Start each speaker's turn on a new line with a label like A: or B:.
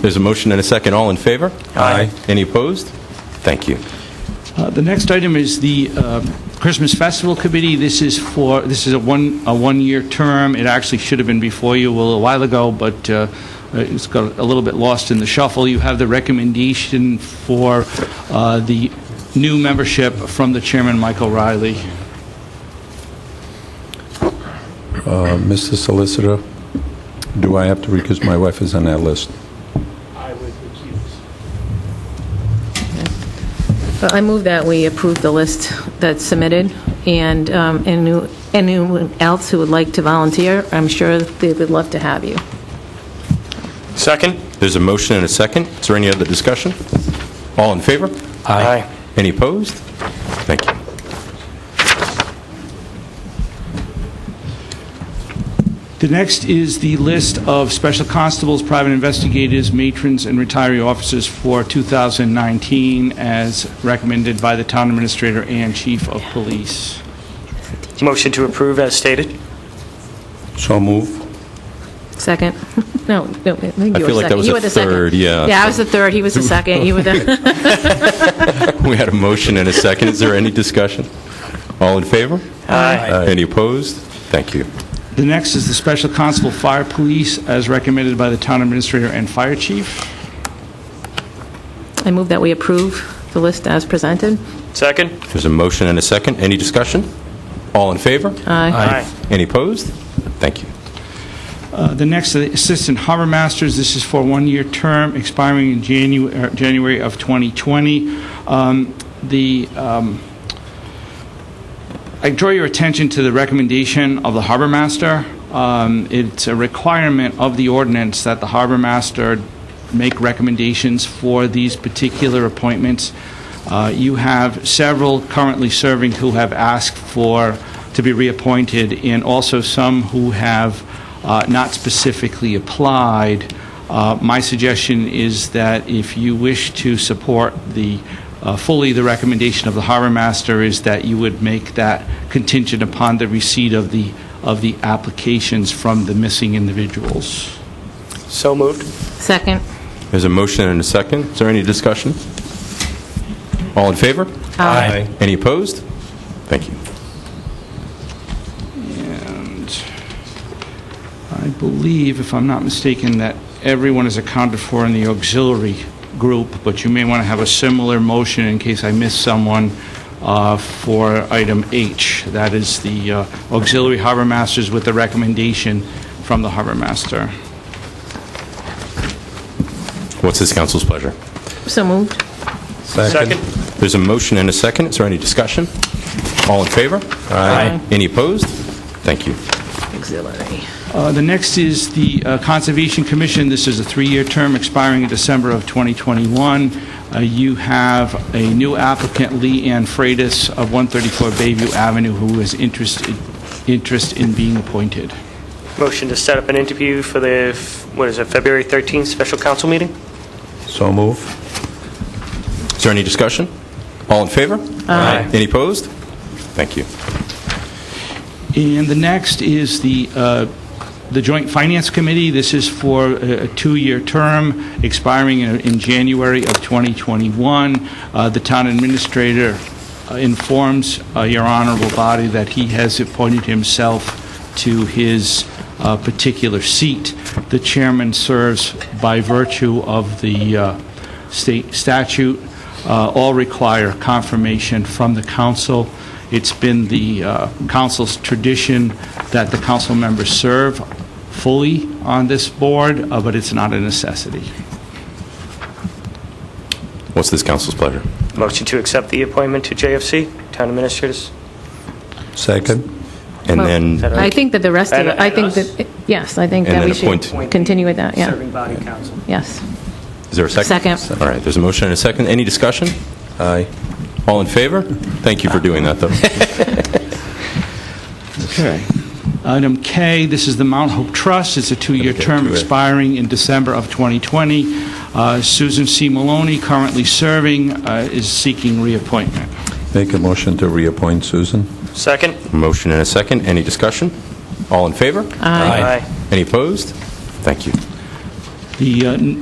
A: There's a motion and a second. All in favor? Aye. Any opposed? Thank you.
B: Uh, The next item is the uh, Christmas Festival Committee. This is for, this is a one, a one-year term. It actually should have been before you a little while ago, but uh, it's got a little bit lost in the shuffle. You have the recommendation for uh, the new membership from the chairman, Michael Riley.
C: Uh, Mr. Solicitor, do I have to, because my wife is on that list.
D: I move that we approve the list that's submitted, and um, any- anyone else who would like to volunteer, I'm sure they would love to have you.
E: Second?
A: There's a motion and a second. Is there any other discussion? All in favor?
E: Aye.
A: Any opposed? Thank you.
B: The next is the list of special constables, private investigators, matrons, and retiree officers for 2019, as recommended by the town administrator and chief of police.
E: Motion to approve as stated?
C: So move.
D: Second? No, no,
A: I
D: I think you were second.
A: feel like that was
D: You
A: a
D: were the second.
A: third, yeah.
D: Yeah, I was the third, he was the second, you were the,
A: We had a motion and a second. Is there any discussion? All in favor?
E: Aye.
A: Any opposed? Thank you.
B: The next is the Special Constable Fire Police, as recommended by the Town Administrator and Fire Chief.
D: I move that we approve the list as presented.
E: Second?
A: There's a motion and a second. Any discussion? All in favor?
D: Aye.
E: Aye.
A: Any opposed? Thank you.
B: Uh, The next, are the Assistant Harbor Masters, this is for a one-year term expiring in Janu- er, January of 2020. Um, The um, I draw your attention to the recommendation of the harbor master. Um, It's a requirement of the ordinance that the harbor master make recommendations for these particular appointments. Uh, You have several currently serving who have asked for, to be reappointed, and also some who have uh, not specifically applied. Uh, My suggestion is that if you wish to support the, uh, fully the recommendation of the harbor master, is that you would make that contingent upon the receipt of the, of the applications from the missing individuals.
E: So moved?
D: Second?
A: There's a motion and a second. Is there any discussion? All in favor?
D: Aye.
A: Any opposed? Thank you.
B: And I believe, if I'm not mistaken, that everyone is accounted for in the auxiliary group, but you may want to have a similar motion in case I miss someone uh, for item H. That is the uh, auxiliary harbor masters with the recommendation from the harbor master.
A: What's this council's pleasure?
D: So moved.
E: Second?
A: There's a motion and a second. Is there any discussion? All in favor?
D: Aye.
A: Any opposed? Thank you.
D: Auxiliary.
B: Uh, The next is the uh, Conservation Commission. This is a three-year term expiring in December of 2021. Uh, You have a new applicant, Lee Ann Freitas of 134 Bayview Avenue, who is interested interest in being appointed.
E: Motion to set up an interview for the, f- what is it, February 13th special council meeting?
C: So move.
A: Is there any discussion? All in favor?
E: Aye.
A: Any opposed? Thank you.
B: And the next is the, uh, the Joint Finance Committee. This is for a a two-year term expiring in in January of 2021. Uh, The town administrator uh, informs uh, your honorable body that he has appointed himself to his uh, particular seat. The chairman serves by virtue of the uh, state statute. Uh, All require confirmation from the council. It's been the uh, council's tradition that the council members serve fully on this board, uh, but it's not a necessity.
A: What's this council's pleasure?
E: Motion to accept the appointment to JFC, town administrators?
C: Second.
A: And
D: Well,
A: then,
E: that
D: I think that the rest of
E: And-
D: it, I
E: and
D: think
E: us?
D: that, yes, I think
A: And
D: that
A: then
D: we
A: appoint.
D: should continue with that, yeah,
E: body council.
D: yes.
A: is there a second?
D: Second.
A: All right, there's a motion and a second. Any discussion?
C: Aye.
A: All in favor? Thank you for doing that, though.
B: Okay. Item K, this is the Mount Hope Trust. It's a two-year term expiring in December of 2020. Uh, Susan C. Maloney, currently serving, uh, is seeking reappointment.
C: Make a motion to reappoint Susan.
E: Second?
A: Motion and a second. Any discussion? All in favor?
E: Aye.
D: Aye.
A: Any opposed? Thank you.
B: The uh,